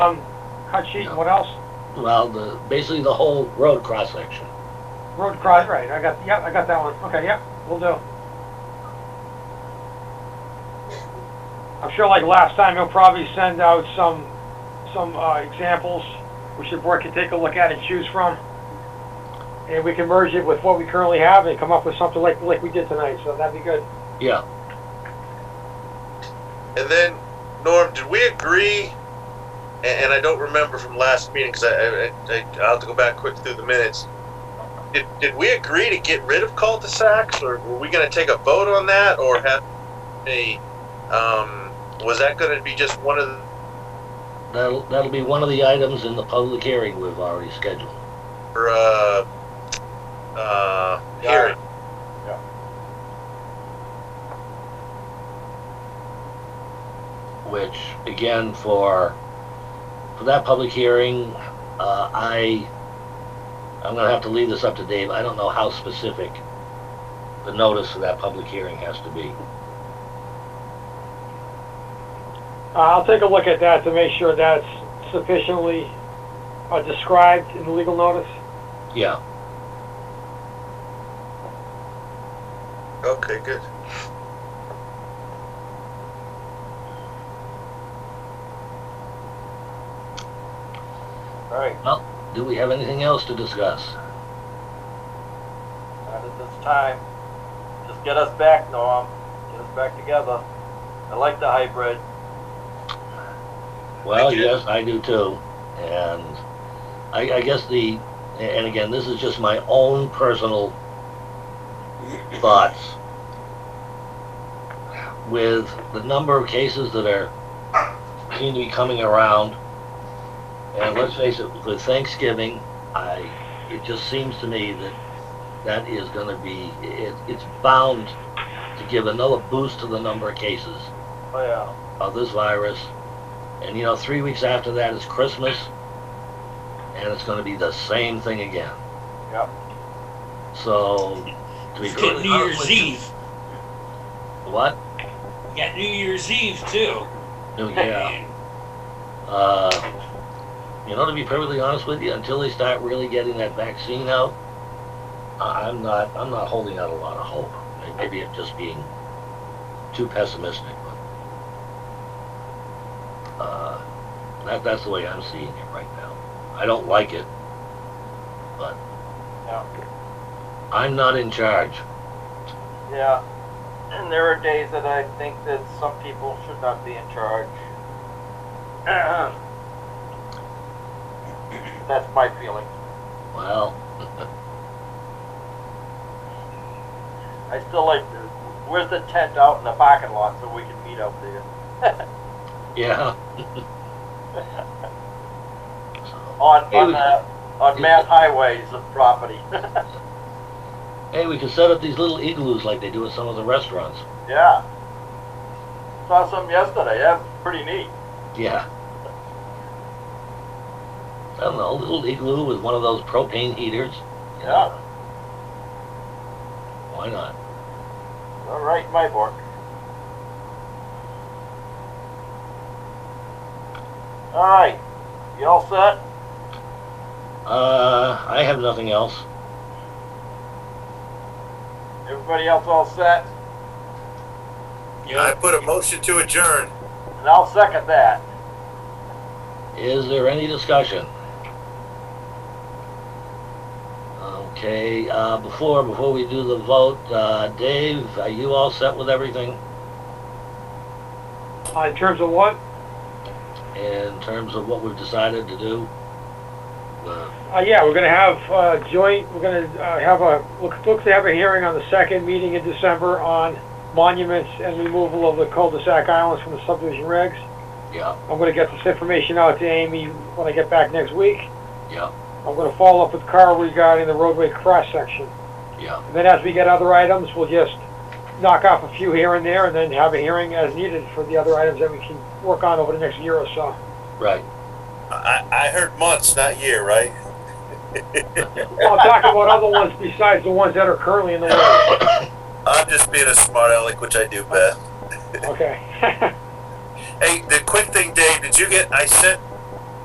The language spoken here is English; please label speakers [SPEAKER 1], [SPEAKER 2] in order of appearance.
[SPEAKER 1] Um, cut sheet and what else?
[SPEAKER 2] Well, the, basically the whole road cross-section.
[SPEAKER 1] Road cross, right, I got, yep, I got that one, okay, yep, we will do. I'm sure like last time, he'll probably send out some, some, uh, examples, which the board can take a look at and choose from. And we can merge it with what we currently have and come up with something like, like we did tonight, so that'd be good.
[SPEAKER 2] Yeah,
[SPEAKER 3] And then, Norm, did we agree? And, and I don't remember from last meeting because I, I, I, I'll have to go back quick through the minutes. Did, did we agree to get rid of cul-de-sacs, or were we going to take a vote on that, or have a? Um, was that going to be just one of? the
[SPEAKER 2] that'll, that'll be one of the items in the public hearing we've already scheduled.
[SPEAKER 3] Or, uh, uh, hearing.
[SPEAKER 1] Yeah.
[SPEAKER 2] Which, again, for, for that public hearing, uh, I, I'm gonna have to leave this up to Dave. I don't know how specific the notice for that public hearing has to be.
[SPEAKER 1] Uh, I'll take a look at that to make sure that's sufficiently, uh, described in the legal notice.
[SPEAKER 2] Yeah,
[SPEAKER 3] Okay, good.
[SPEAKER 4] All right,
[SPEAKER 2] do we have anything else to discuss?
[SPEAKER 4] not at this time. Just get us back, Norm. Get us back together. I like the hybrid.
[SPEAKER 2] Well,
[SPEAKER 3] Thank you.
[SPEAKER 2] yes, I do too. And I, I guess the, and again, this is just my own personal thoughts. With the number of cases that are, seem to be coming around, and let's face it, with Thanksgiving, I, it just seems to me that that is gonna be, it, it's bound to give another boost to the number of cases
[SPEAKER 4] Oh, yeah.
[SPEAKER 2] of this virus. And you know, three weeks after that is Christmas, and it's going to be the same thing again.
[SPEAKER 4] Yep.
[SPEAKER 2] So, to be
[SPEAKER 5] We've got
[SPEAKER 2] totally
[SPEAKER 5] New
[SPEAKER 2] honest
[SPEAKER 5] Year's
[SPEAKER 2] with
[SPEAKER 5] Eve.
[SPEAKER 2] you- what?
[SPEAKER 5] We got New Year's Eve too.
[SPEAKER 2] New Year. Oh, Uh, you know, to be perfectly honest with you, until they start really getting that vaccine out, I- I'm not, I'm not holding out a lot of hope. Maybe I'm just being too pessimistic, but uh, that, that's the way I'm seeing it right now. I don't like it, but
[SPEAKER 4] Yeah.
[SPEAKER 2] I'm not in charge.
[SPEAKER 4] Yeah. And there are days that I think that some people should not be in charge. That's my feeling.
[SPEAKER 2] Well,
[SPEAKER 4] I still like the, where's the tent out in the parking lot so we can meet up there?
[SPEAKER 2] yeah. So,
[SPEAKER 4] On,
[SPEAKER 2] Hey,
[SPEAKER 4] on,
[SPEAKER 2] we-
[SPEAKER 4] uh, on Mass Highways of property.
[SPEAKER 2] hey, we can set up these little igloos like they do at some of the restaurants.
[SPEAKER 4] Yeah. Saw some yesterday. Yeah, pretty neat.
[SPEAKER 2] Yeah. I don't know, a little igloo with one of those propane heaters. you know?
[SPEAKER 4] Yeah.
[SPEAKER 2] Why not?
[SPEAKER 4] All right, my book. All right. You all set?
[SPEAKER 2] Uh, I have nothing else.
[SPEAKER 4] Everybody else all set?
[SPEAKER 3] I
[SPEAKER 5] Yeah.
[SPEAKER 3] put a motion to adjourn.
[SPEAKER 4] And I'll second that.
[SPEAKER 2] Is there any discussion? Okay, uh, before, before we do the vote, uh, Dave, are you all set with everything
[SPEAKER 1] Uh, in terms of what?
[SPEAKER 2] in terms of what we've decided to do? Uh,
[SPEAKER 1] Uh, yeah, we're gonna have, uh, joint, we're gonna, uh, have a, look, look to have a hearing on the second meeting in December on monuments and removal of the cul-de-sac islands from the subdivision regs.
[SPEAKER 2] Yeah,
[SPEAKER 1] I'm gonna get this information out to Amy when I get back next week.
[SPEAKER 2] yeah,
[SPEAKER 1] I'm gonna follow up with Carl regarding the roadway cross-section.
[SPEAKER 2] yeah,
[SPEAKER 1] And then as we get other items, we'll just knock off a few here and there and then have a hearing as needed for the other items that we can work on over the next year or so.
[SPEAKER 2] right.
[SPEAKER 3] I, I heard months, not year, right?
[SPEAKER 1] Well, I'm talking about other ones besides the ones that are currently in the works.
[SPEAKER 3] I'm just being a smart aleck, which I do, Beth.
[SPEAKER 1] Okay.
[SPEAKER 3] Hey, the quick thing, Dave, did you get, I sent